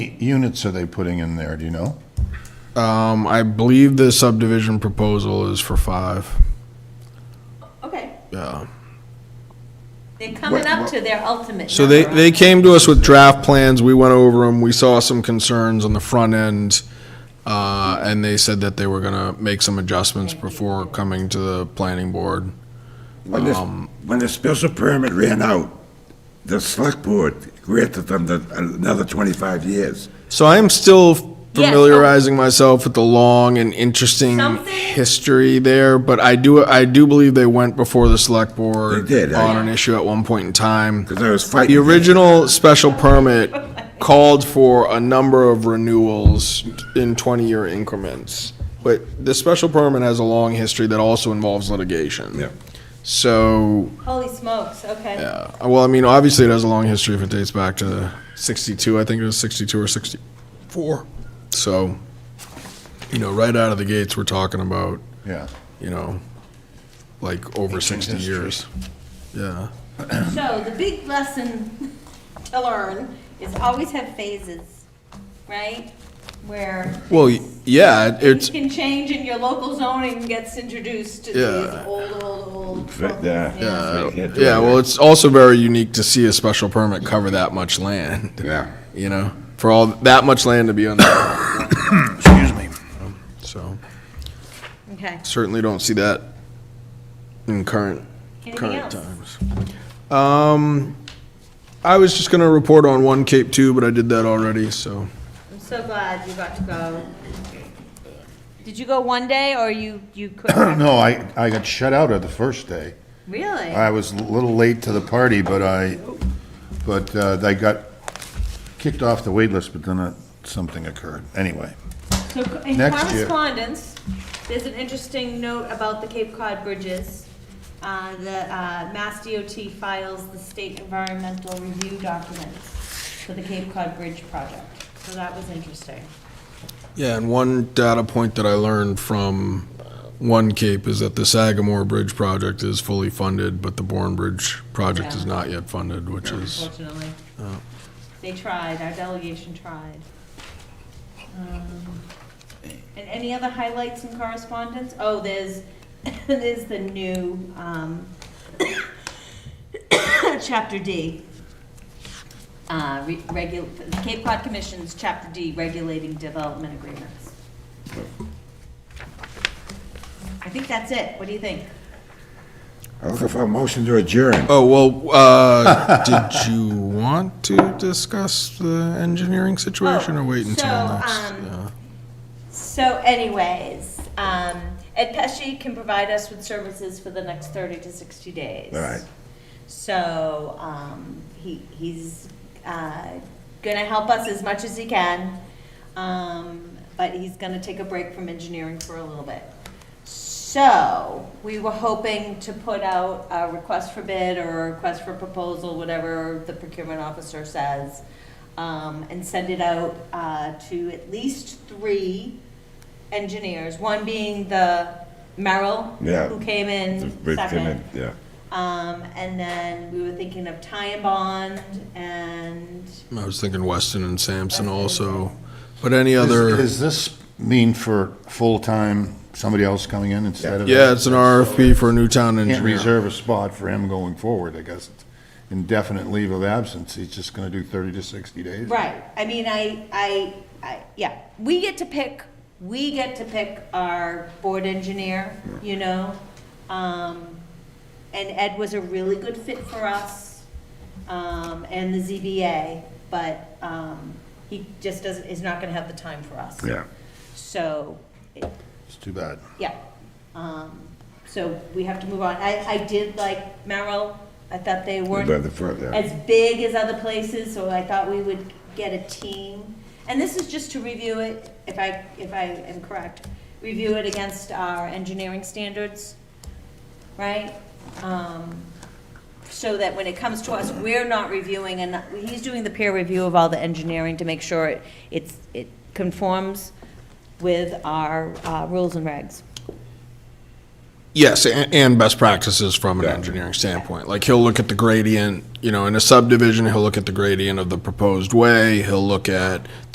units are they putting in there, do you know? Um, I believe the subdivision proposal is for five. Okay, Yeah. they're coming up to their ultimate. So they, number. they came to us with draft plans, we went over them, we saw some concerns on the front end, uh, and they said that they were gonna make some adjustments before coming to the planning board. When this, Um, when the special permit ran out, the select board granted them the, another twenty-five years. So I am still familiarizing myself with the long and interesting Something- history there, but I do, I do believe they went before the select board They did, I- on an issue at one point in time. Because I was fighting. The original special permit called for a number of renewals in 20-year increments, but the special permit has a long history that also involves litigation. Yeah. So, Holy smokes, okay. yeah, well, I mean, obviously, it has a long history if it dates back to 62, I think it was 62 or 64. So, you know, right out of the gates, we're talking about, Yeah. you know, like over 60 history. years. Yeah. So the big lesson to learn is always have phases, right? Where. Well, y- yeah, Things it's, can change and your local zoning gets introduced to these Yeah. old, old, old. Right, yeah. Yeah. Yeah, well, it's also very unique to see a special permit cover that much land, Yeah. you know, for all, that much land to be on there. Excuse me. So, Okay, certainly don't see that in current, anything current else? times. Um, I was just gonna report on One Cape Two, but I did that already, so. I'm so glad you got to go. Did you go one day or you, you couldn't? No, I, I got shut out at the first day. Really? I was a little late to the party, but I, but uh, they got kicked off the wait list, but then uh, something occurred. Anyway, So co- in Next year. correspondence, there's an interesting note about the Cape Cod bridges. Uh, The uh, Mass DOT files the state environmental review documents for the Cape Cod Bridge project. So that was interesting. Yeah, and one data point that I learned from One Cape is that the Sagamore Bridge project is fully funded, but the Bourne Bridge project is Yeah. not yet funded, which is. unfortunately. They tried, our delegation tried. Um, And any other highlights in correspondence? Oh, there's, there's the new, um, chapter D. Uh, re- regu, Cape Cod Commission's chapter D, regulating development agreements. I think that's it. What do you think? I'm looking for a motion to adjourn. Oh, well, uh, did you want to discuss the engineering situation or wait until Oh, so, next? um, Yeah. So anyways, um, Ed Pesci can provide us with services for the next thirty to sixty days. All right. So, um, he, he's, uh, gonna help us as much as he can. Um, but he's gonna take a break from engineering for a little bit. So, we were hoping to put out a request for bid or a request for proposal, whatever the procurement officer says, um, and send it out, uh, to at least three engineers, one being the Merrill, Yeah. who came in Bridge came in, second. Yeah. Um, and then we were thinking of Ty and Bond and I was thinking Weston and Sampson also, but any Is- other, Is this mean for full-time, somebody else coming in instead of? yeah, it's an RFP for a new town Can't engineer. reserve a spot for him going forward, I guess. Indefinite leave of absence, he's just gonna do thirty to sixty days. Right, I mean, I, I, I, yeah, we get to pick, we get to pick our board engineer, you know? Um, and Ed was a really good fit for us, um, and the ZBA, but, um, he just doesn't, is not gonna have the time for us. Yeah. So, it- It's too bad. yeah, um, so we have to move on. I, I did like Merrill, I thought they weren't By the front, yeah. as big as other places, so I thought we would get a team. And this is just to review it, if I, if I am correct, review it against our engineering standards, right? Um, So that when it comes to us, we're not reviewing, and he's doing the peer review of all the engineering to make sure it, it's, it conforms with our uh, rules and regs. Yes, and, and best practices from an Yeah. engineering standpoint. Like, he'll look at the gradient, you know, in a subdivision, he'll look at the gradient of the proposed way, he'll look at